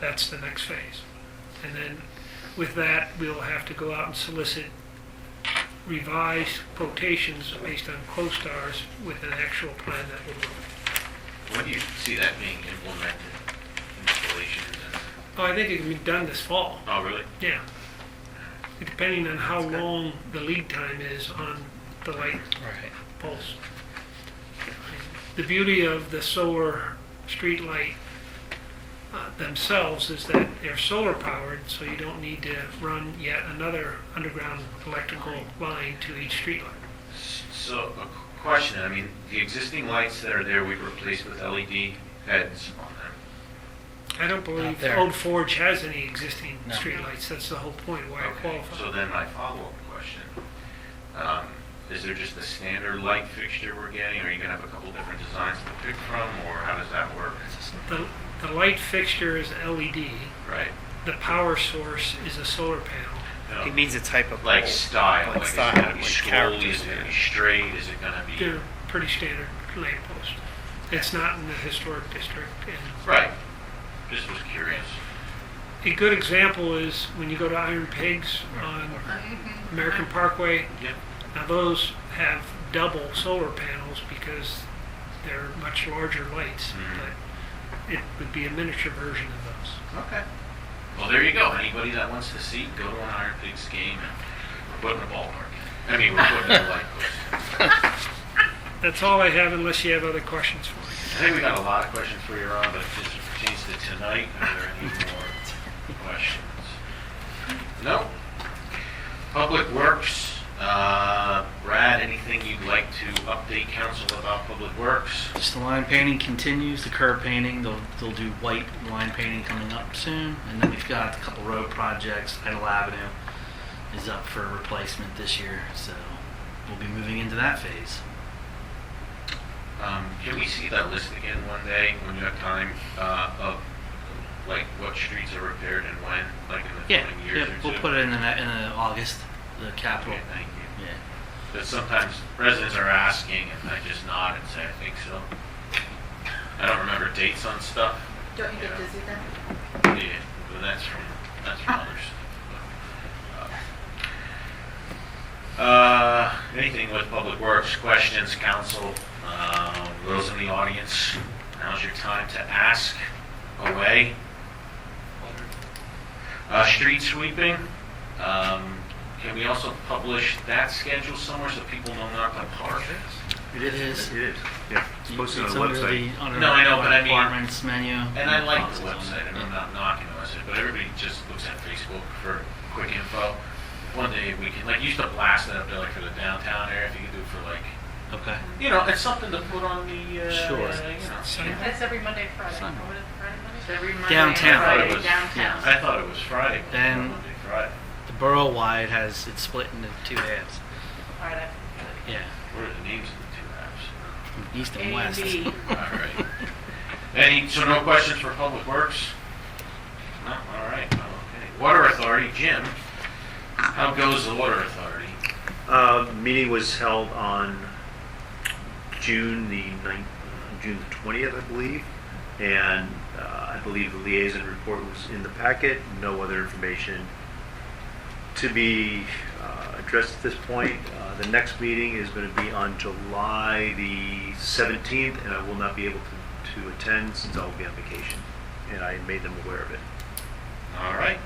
That's the next phase. And then with that, we'll have to go out and solicit revised quotations based on CoStar's with an actual plan that will work. When do you see that being implemented? Installations and... Oh, I think it can be done this fall, Oh, really? yeah. Depending on how That's good. long the lead time is on the light Right. pulse. The beauty of the solar streetlight uh, themselves is that they're solar powered, so you don't need to run yet another underground electrical line to each streetlight. So, a qu- question, I mean, the existing lights that are there, we've replaced with LED heads on them. I don't believe there. Old Forge has any existing No. streetlights, that's the whole point why it Okay, So qualifies. then my follow-up question, um, is there just a standard light fixture we're getting? Are you gonna have a couple different designs to pick from, or how does that work? The, the light fixture is LED, Right? the power source is a solar panel. No. He means a type of Like pole. style, Like like is it style, gonna be like scrolled, characters, is it gonna yeah. be straight, is it gonna be? They're pretty standard lamppost. It's not in the historic district and Right, just was curious. A good example is when you go to Iron Pigs on American Parkway. Yep. Now those have double solar panels because they're much larger lights, Mhm. but it would be a miniature version of those. Okay. Well, there you go. Anybody that wants to see, go to an Iron Pigs game. And we're putting a ballpark. in. I mean, we're putting a light post. That's all I have unless you have other questions for me. I think we got a lot of questions for you, Ron, but if this pertains to tonight, are there any more questions? No? Public Works, uh, Brad, anything you'd like to update council about Public Works? Just the line painting continues, the curb painting, they'll, they'll do white line painting coming up soon. And then we've got a couple road projects, Idle Avenue is up for replacement this year, so we'll be moving into that phase. Um, can we see that list again one day when you have time, uh, of like what streets are repaired and when, like in the Yeah, coming years yeah, or two? we'll put it in the, ne- in the August, the capital. Okay, thank you. Yeah. But sometimes residents are asking and I just nod and say, I think so. I don't remember dates on stuff. Don't you Yeah. get dizzy then? Yeah, but that's from, that's from others. Uh, anything with Public Works, questions, council, uh, those in the audience, now's your time to ask away. Uh, street sweeping, um, can we also publish that schedule somewhere so people know not to park? It is. It is, yeah. It's posted on the under website. the- under No, I know, the but I mean- Departments menu. And I like the Yeah. website, and I'm not knocking the website, but everybody just looks at Facebook for quick info. One day we can, like, you used to blast it up there, like, for the downtown area, if you could do it for, like, Okay. you know, it's something to put on the, uh, Sure. you know. Sign- That's every Monday, Friday. Sunday. What is it, Friday, Monday? Every Monday. Downtown. I thought Friday, it was- Downtown. I thought it was Friday. but it's Then- Monday, Friday. The borough wide has it's split into two halves. Friday. Yeah, What are the names of the from east A and and west. B. two apps? All right. Any, so no questions for Public Works? No, all right, well, okay. Water Authority, Jim, how goes the Water Authority? Uh, meeting was held on June the ninth, June the twentieth, I believe. And, uh, I believe the liaison report was in the packet, no other information to be, uh, addressed at this point. Uh, the next meeting is gonna be on July the seventeenth, and I will not be able to, to attend since I'll be on vacation. And I made them aware of it. All right.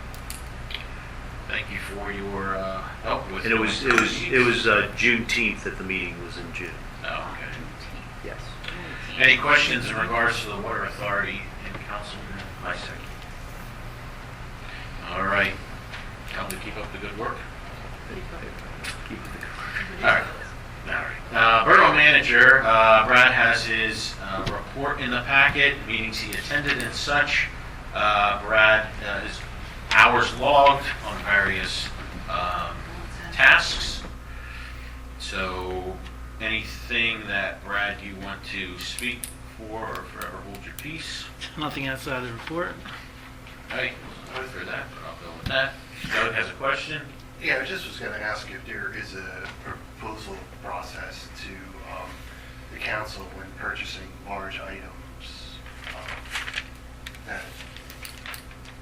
Thank you for your uh, help with. And it was, it was, it was uh, Juneteenth that the meeting was in June. Oh, okay. Yes. Any questions in regards to the water authority and Councilman Lysak? All right. Tell them to keep up the good work. All right. All right. Uh, Borough manager, uh, Brad has his uh, report in the packet, meetings he attended and such. Uh, Brad uh, is hours logged on various um, tasks. So anything that, Brad, you want to speak for or forever hold your peace? Nothing outside of the report. Hey, sorry for that, but I'll go with that. Doug has a question. Yeah, I just was gonna ask if there is a proposal process to um, the council when purchasing large items um, that